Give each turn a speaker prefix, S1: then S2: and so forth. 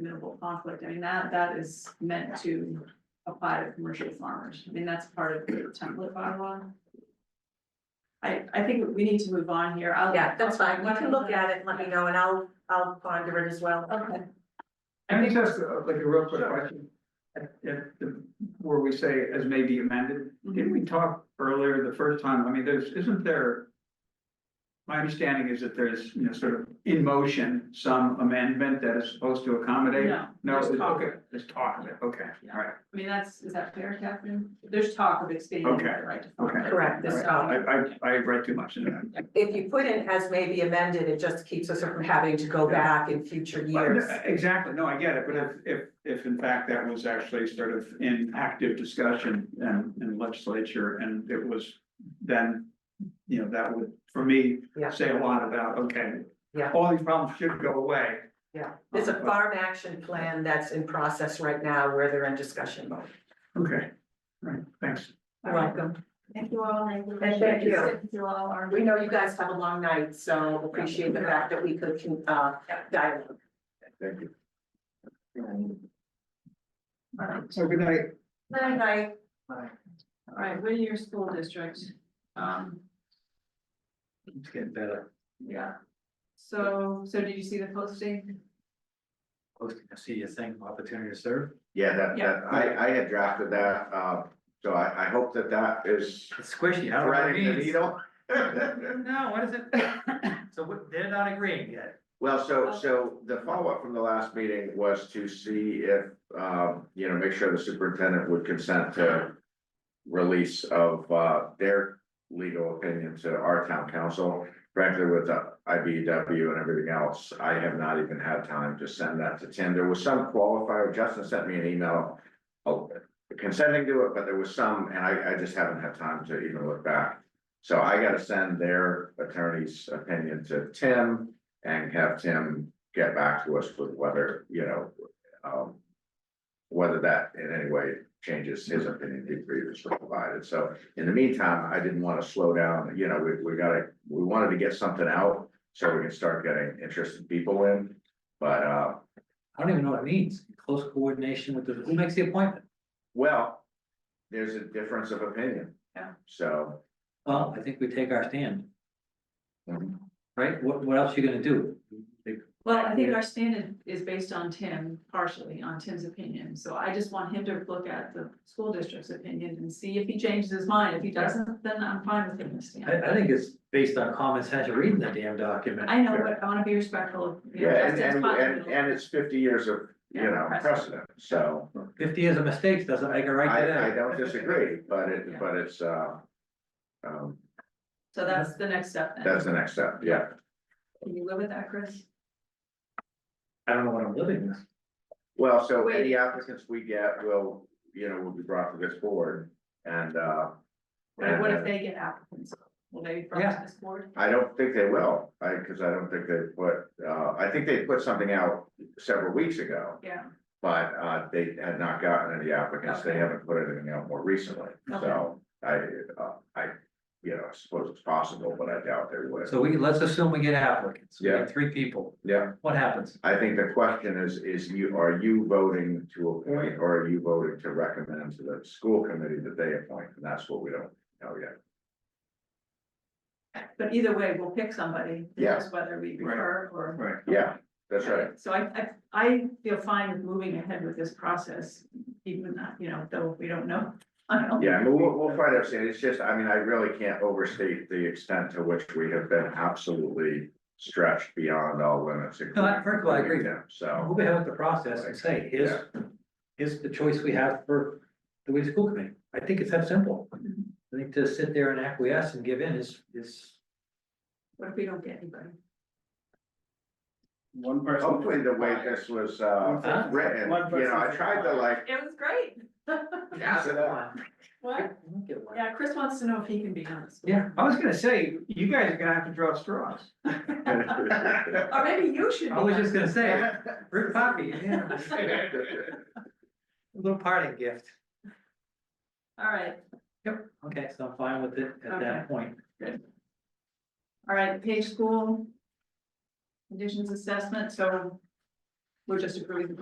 S1: minimal conflict, I mean, that, that is meant to apply to commercial farmers, I mean, that's part of the template bylaw. I, I think we need to move on here, I'll.
S2: Yeah, that's fine, you can look at it, and let me know, and I'll, I'll ponder it as well.
S1: Okay,
S3: Can I just ask uh, like a real quick question? At, at the, where we say as may be amended, didn't
S1: Mm-hmm.
S3: we talk earlier the first time, I mean, there's, isn't there? My understanding is that there's, you know, sort of in motion, some amendment that is supposed to accommodate.
S1: no,
S3: No,
S1: there's
S3: it's-
S1: talk.
S3: okay, there's talk of it, okay, all right,
S1: I mean, that's, is that fair, Catherine? There's talk of expanding the
S3: Okay,
S1: right to farm.
S3: okay.
S2: Correct,
S1: This
S2: this,
S1: talk.
S3: I, I, I read too much into that.
S2: if you put in as may be amended, it just keeps us from having to go back in future years.
S3: But, uh, Exactly, no, I get it, but if, if, if in fact that was actually sort of in active discussion and, in legislature, and it was then. You know, that would, for me,
S2: Yeah.
S3: say a lot about, okay.
S2: Yeah.
S3: All these problems should go away,
S2: Yeah, there's a farm action plan that's in process right now where they're in discussion mode.
S3: okay, right, thanks.
S2: You're welcome.
S4: Thank you all, and
S2: And thank you.
S4: Sit through all our-
S2: We know you guys have a long night, so appreciate the fact that we could, uh, dialogue.
S3: Thank you.
S1: All right,
S3: So good night.
S2: Good night.
S1: all right, Whittier School District, um,
S3: It's getting better,
S1: yeah. So, so did you see the posting?
S3: posting, I see your thing, opportunity to serve.
S5: Yeah, that,
S1: Yeah.
S5: that, I, I had drafted that, uh, so I, I hope that that is
S6: It's squishy, I don't know what it
S5: threading the
S6: means.
S5: needle.
S6: No, what is it? So what, they're not agreeing yet.
S5: Well, so, so the follow-up from the last meeting was to see if, um, you know, make sure the superintendent would consent to release of, uh, their legal opinion to our town council. Frankly, with the IBW and everything else, I have not even had time to send that to Tim. There was some qualifier, Justin sent me an email. oh, Consenting to it, but there was some, and I, I just haven't had time to even look back. So I gotta send their attorney's opinion to Tim and have Tim get back to us with whether, you know, um. Whether that in any way changes his opinion he previously provided, so in the meantime, I didn't wanna slow down, you know, we, we gotta, we wanted to get something out. So we can start getting interested people in, but, uh,
S6: I don't even know what it means. Close coordination with the, who makes the appointment?
S5: well. There's a difference of opinion.
S1: Yeah.
S5: So,
S6: Well, I think we take our stand,
S5: um,
S6: right? What, what else you gonna do?
S1: Well, I think our standard is based on Tim, partially on Tim's opinion, so I just want him to look at the school district's opinion and see if he changes his mind, if he doesn't, then I'm fine with him to
S6: I,
S1: stand.
S6: I think it's based on common sense of reading the damn document.
S1: I know, but I wanna be respectful of. you know,
S5: yeah, and,
S1: Justin's
S5: and, and,
S1: possibility.
S5: and it's fifty years of, you
S1: Yeah,
S5: know,
S1: precedent.
S5: precedent, so.
S6: Fifty years of mistakes doesn't make it right
S5: I, I
S6: today.
S5: don't disagree, but
S1: Yeah.
S5: it, but it's, uh. Um,
S1: So that's the next step then,
S5: that's the next step, yeah.
S1: can you live with that, Chris?
S6: I don't know what I'm living with.
S5: Well, so
S1: Wait.
S5: any applicants we get will, you know, will be brought to this board. And, uh,
S1: Or what if
S5: Uh,
S1: they get applicants, will they be brought to
S6: Yeah.
S1: this board?
S5: I don't think they will, I, cause I don't think they put, uh, I think they put something out several weeks ago.
S1: Yeah,
S5: But, uh, they had not gotten any applicants, they
S1: Okay.
S5: haven't put anything out more recently, so I, uh, I, you know, I suppose it's possible, but I doubt they would.
S6: So we, let's assume we get applicants. We
S5: Yeah.
S6: get three people.
S5: Yeah.
S6: What happens?
S5: I think the question is, is you, are you voting to appoint or are you voting to recommend to the school committee that they appoint? And that's what we don't know yet.
S1: but either way, we'll pick somebody, it's
S5: Yeah.
S1: just whether we
S3: Right.
S1: refer or.
S3: Right.
S5: Yeah, that's right.
S1: So I, I, I feel fine with moving ahead with this process, even, uh, you know, though we don't know. I don't know.
S5: Yeah, but we'll, we'll find out soon. It's just, I mean, I really can't overstate the extent to which we have been absolutely stretched beyond all limits.
S6: No, I- first of all, I agree.
S5: including them. So,
S6: Uh, We'll be having the process and say, here's, here's the choice we have for the way the school committee. I think it's that simple. I think to sit there and acquiesce and give in is, is,
S1: What if we don't get anybody?
S3: One person.
S5: hopefully the way this was, uh,
S6: Huh?
S5: written,
S3: One
S5: you know, I
S3: person's-
S5: tried to like,
S1: It was great.
S5: pass it up.
S1: What? Yeah, Chris wants to know if he can be on the school.
S6: Yeah,
S3: I was gonna say, you guys are gonna have to draw straws.
S1: Or maybe you should be.
S6: I was
S1: on
S6: just
S1: it.
S6: gonna say, Rick Poppy, yeah, a little parting gift.
S1: All right,
S6: Yep, okay, so I'm fine with it at
S1: Okay.
S6: that point.
S1: all right, Page School. Conditions assessment, so we're just approving the